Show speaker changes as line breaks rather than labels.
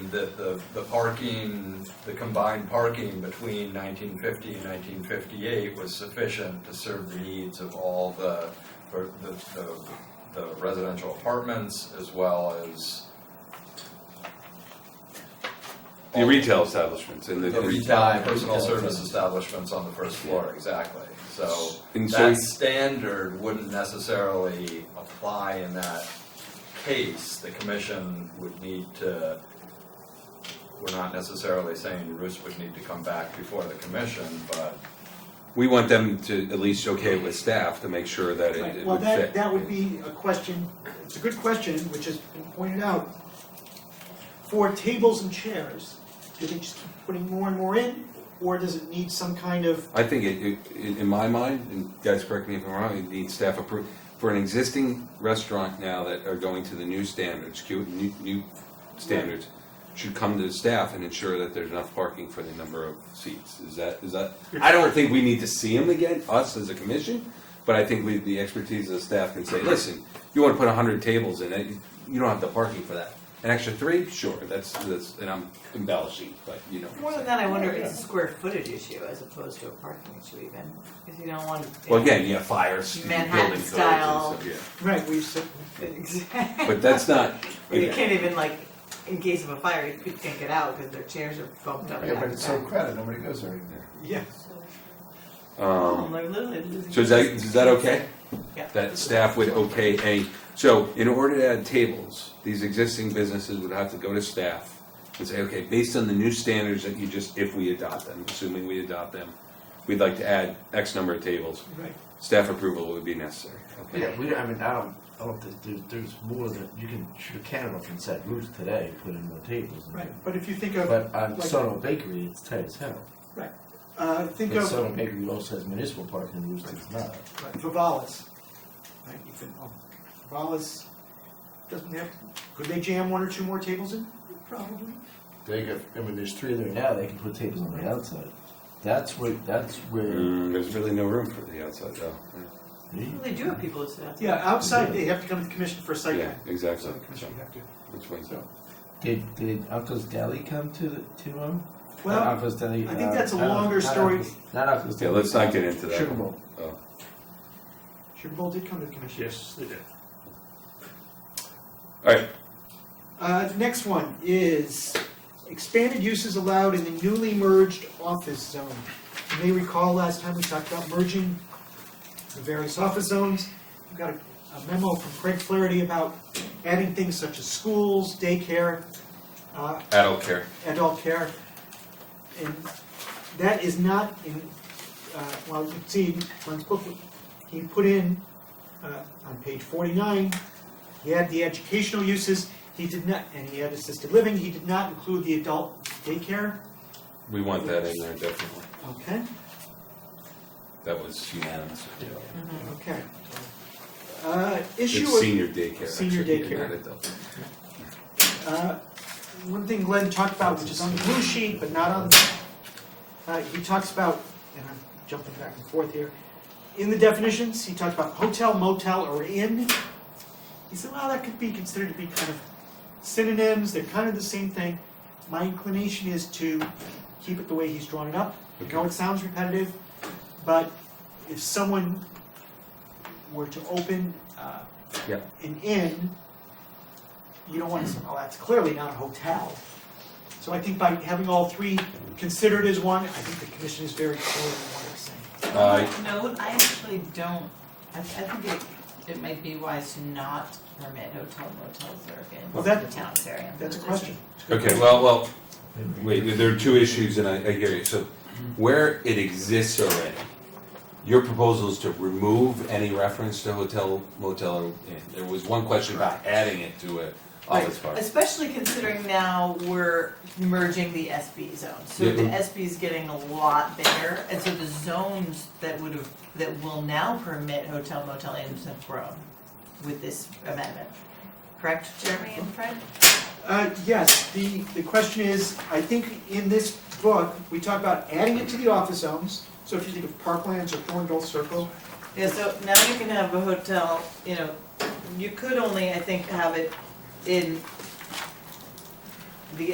that the, the parking, the combined parking between nineteen fifty and nineteen fifty-eight was sufficient to serve the needs of all the, or the, the, the residential apartments as well as
The retail establishments and the.
the retail,
Retail.
personal service establishments on the first floor, exactly, so.
And so,
That standard wouldn't necessarily apply in that case, the commission would need to. We're not necessarily saying Bruce would need to come back before the commission, but
we want them to at least okay it with staff to make sure that it it
Well,
would fit.
that, that would be a question, it's a good question, which has been pointed out. For tables and chairs, do they just keep putting more and more in, or does it need some kind of,
I think it, it, in in my mind, and guys correct me if I'm wrong, it needs staff approval. For an existing restaurant now that are going to the new standards, Q, new, new standards, should come to the staff and ensure that there's enough parking for the number of seats. Is that, is that, I don't think we need to see them again, us as a commission, but I think we, the expertise of the staff can say, listen, you wanna put hundred tables in it, you don't have the parking for that. An extra three, sure, that's, that's, and I'm embellishing, but you know. what I'm
More
saying.
than that, I wonder if it's a square footage issue as opposed to a parking issue even, because you don't want.
Well, again, yeah, fires, building
Manhattan
codes and
style.
stuff, yeah.
right, we've said,
Exactly.
But that's not,
You can't even like, in case of a fire, you can't get out because their chairs are bumped up.
Yeah, but it's so
back.
crowded, nobody goes there anymore.
yeah,
Oh,
um,
they're literally losing.
so is that, is that okay?
Yeah.
That staff would okay a, so in order to add tables, these existing businesses would have to go to staff and say, okay, based on the new standards that you just, if we adopt them, assuming we adopt them, we'd like to add X number of tables,
right.
staff approval would be necessary, okay?
Yeah, we, don't- I mean, I don't, I don't think there's, there's more than, you can shoot a cannon up and set roofs today, put in more tables. and-
Right, but if you think of,
But on
Like-
Sono Bakery, it's tight as hell.
uh, think
But
of
Sono Bakery also has municipal parking, roofs does not.
right, Vivalas, right, you can, oh, Vivalas doesn't have, could they jam one or two more tables in? Probably.
They got, I mean, there's three there now, they can put tables on the outside. That's where, that's where.
Mm, there's really no room for the outside though.
you-
Well, They do have people who sit outside.
Yeah, outside, they have to come to the commission for a site
Yeah,
plan, so
exactly.
the commission would have to.
Which one's up?
Did, did Uncle's Deli come to, the to them?
Well,
Uncle's Deli.
I think that's a
uh, not
longer
Uncle's-
story.
Not Uncle's
Yeah,
Deli.
let's not get into that.
Sugar Bowl.
Oh.
Sugar Bowl did come to the commission.
Yes, they did.
Alright,
Uh, the next one is expanded uses allowed in the newly merged office zone. You may recall last time we talked about merging the various office zones. We got a a memo from Craig Flaherty about adding things such as schools, daycare, uh,
adult care.
adult care. And that is not in, uh, well, you can see, Glenn's book, he put in, uh, on page forty-nine, he had the educational uses, he did not, and he had assisted living, he did not include the adult daycare,
We want that in there definitely.
okay,
That was unanimous.
okay. Uh, issue
It's
of.
senior daycare.
Senior
actually,
daycare.
not adult.
Uh, One thing Glenn talked about, which is on the blue sheet, but not on, uh, he talks about, and I'm jumping back and forth here, in the definitions, he talked about hotel, motel, or inn. He said, well, that could be considered to be kind of synonyms, they're kind of the same thing. My inclination is to keep it the way he's drawn it up. I know it sounds repetitive, but if someone were to open uh,
Yeah.
an inn, you don't want to say, oh, that's clearly not a hotel. So I think by having all three considered as one, I think the commission is very clear in what it's saying.
Uh,
No, I actually don't, I, I think it, it might be wise to not permit hotel motels or in
Well, that-
the town's area.
That's a question.
Okay, well, well, wait, there are two issues and I, I hear you. So where it exists already, your proposal is to remove any reference to hotel, motel, or inn. There was one question about adding it to a office
Right,
park.
Especially considering now we're merging the SB zone, so the
Mhm.
SB is getting a lot bigger, and so the zones that would have, that will now permit hotel motel inns have grown with this amendment. Correct, Jeremy and Fred?
Uh, yes, the, the question is, I think in this book, we talk about adding it to the office zones. So if you think of Parklands or Thorndale Circle,
Yeah, so now you can have a hotel, you know, you could only, I think, have it in